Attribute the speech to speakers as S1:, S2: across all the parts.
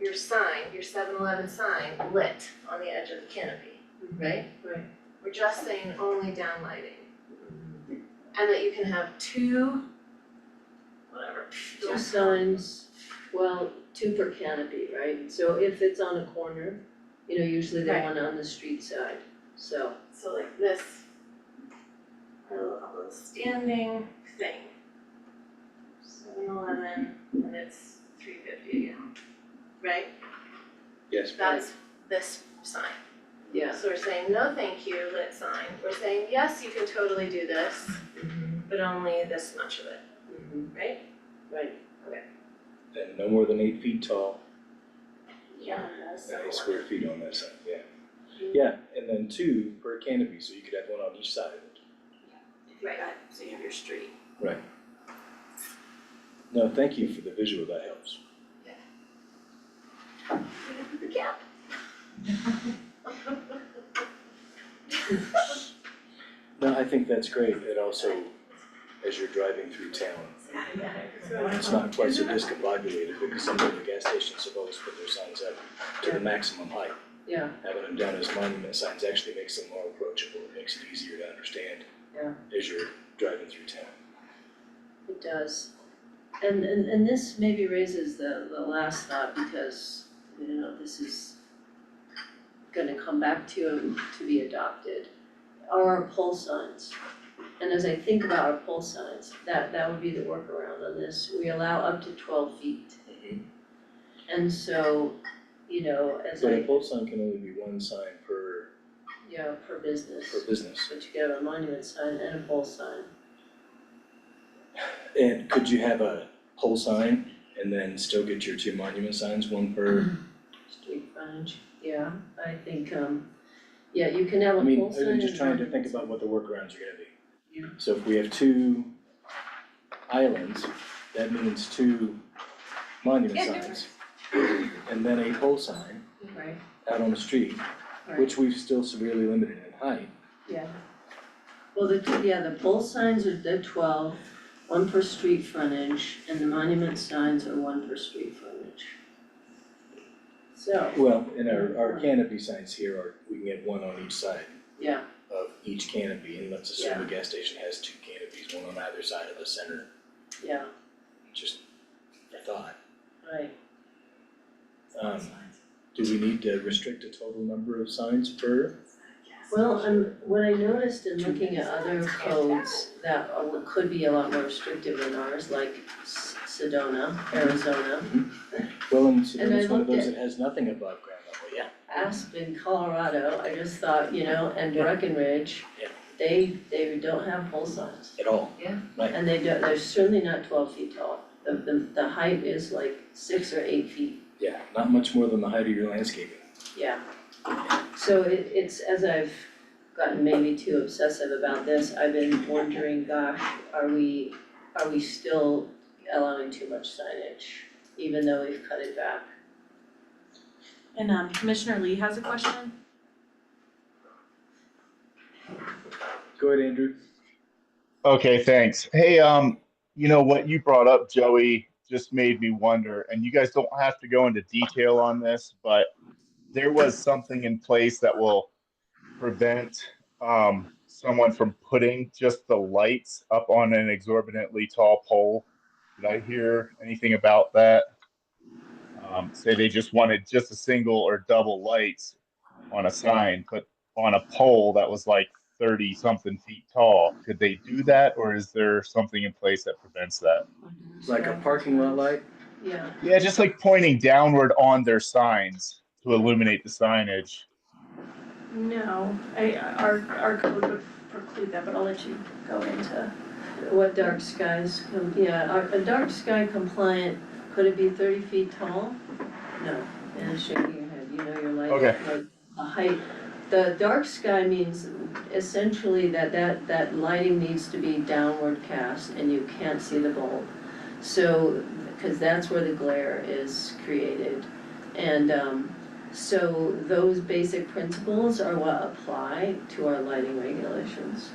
S1: your sign, your 7-Eleven sign lit on the edge of the canopy, right?
S2: Right.
S1: We're just saying only downlighting. And that you can have two, whatever,
S2: Two signs, well, two per canopy, right? So if it's on a corner, you know, usually they
S1: Right.
S2: want on the street side, so.
S1: so like this. A little standing thing. 7-Eleven, and it's three fifty again, right?
S3: Yes,
S1: That's this sign.
S2: Yeah.
S1: So we're saying, no, thank you, lit sign. We're saying, yes, you can totally do this, but only this much of it,
S2: Mhm.
S1: right?
S2: Right,
S3: and no more than eight feet tall,
S1: Yeah.
S3: eight square feet on that side, yeah. Yeah, and then two per canopy, so you could have one on each side of it.
S1: Right.
S4: so you have your street.
S3: No, thank you for the visual, that helps.
S1: Yeah.
S3: No, I think that's great, it also, as you're driving through town, it's not quite so discombobulated, because some of the gas stations have always put their signs up to the maximum height.
S2: yeah,
S3: Having them down as monument signs actually makes them more approachable, it makes it easier to understand
S2: Yeah.
S3: as you're driving through town.
S2: it does. And and and this maybe raises the the last thought because, you know, this is gonna come back to to be adopted, are our pole signs. And as I think about our pole signs, that that would be the workaround on this, we allow up to twelve feet. And so, you know, as
S3: But a
S2: I,
S3: pole sign can only be one sign per,
S2: you know, per business,
S3: per business.
S2: but you could have a monument sign and a pole sign.
S3: And could you have a pole sign and then still get your two monument signs,
S2: Mm-hmm.
S3: one per?
S2: Street frontage, yeah, I think, um, yeah, you can have a
S3: I
S2: pole
S3: mean,
S2: sign.
S3: I'm just
S2: and
S3: trying to
S2: monument
S3: think about what the workarounds are gonna be.
S2: Yeah.
S3: So if we have two islands, that means two monument
S1: Yeah, different.
S3: signs. And then a pole sign
S2: sign, Right,
S3: out on the street, which we've still severely limited in height.
S2: yeah. Well, the, two- yeah, the pole signs are the twelve, one per street frontage, and the monument signs are one per street frontage. So,
S3: Well, and our, our canopy signs here are, we can get one on each side
S2: yeah,
S3: of each canopy. And let's assume the gas station has two canopies, one on either side of the center.
S2: yeah,
S3: just a thought.
S2: right,
S3: Um, do we need to restrict a total number of signs per?
S2: well, and what I noticed in looking at other codes that are- could be a lot more restrictive than ours, like S- Sedona, Arizona.
S3: Well, and so
S2: And I
S3: it's one of
S2: looked
S3: those that has nothing above ground level, yeah.
S2: Aspen, Colorado, I just thought, you know, and Breckenridge,
S3: Yeah.
S2: they, they don't have pole signs.
S3: At all.
S2: And they don't, they're certainly not twelve feet tall. The, the, the height is like six or eight feet,
S3: Yeah, not much more than the height of your landscaping.
S2: yeah. So it, it's, as I've gotten maybe too obsessive about this, I've been wondering, gosh, are we, are we still allowing too much signage? Even though we've cut it back.
S4: And um Commissioner Lee has a question.
S3: Go ahead, Andrew.
S5: Okay, thanks. Hey, um, you know what you brought up, Joey, just made me wonder, and you guys don't have to go into detail on this, but there was something in place that will prevent um someone from putting just the lights up on an exorbitantly tall pole. Did I hear anything about that? Um, say they just wanted just a single or double lights on a sign, but on a pole that was like thirty something feet tall. Could they do that, or is there something in place that prevents that?
S3: Like a parking lot light?
S2: Yeah,
S5: Yeah, just like pointing downward on their signs to illuminate the signage.
S6: No, I, our, our code would preclude that, but I'll let you go into.
S2: what dark skies, com- yeah, are- a dark sky compliant, could it be thirty feet tall? No, and shaking your head, you know your light,
S5: Okay.
S2: like, a height. The dark sky means essentially that that that lighting needs to be downward cast and you can't see the bulb. So, cause that's where the glare is created. And um, so those basic principles are what apply to our lighting regulations.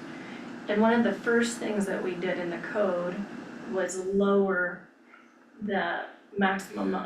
S6: And one of the first things that we did in the code was lower the maximum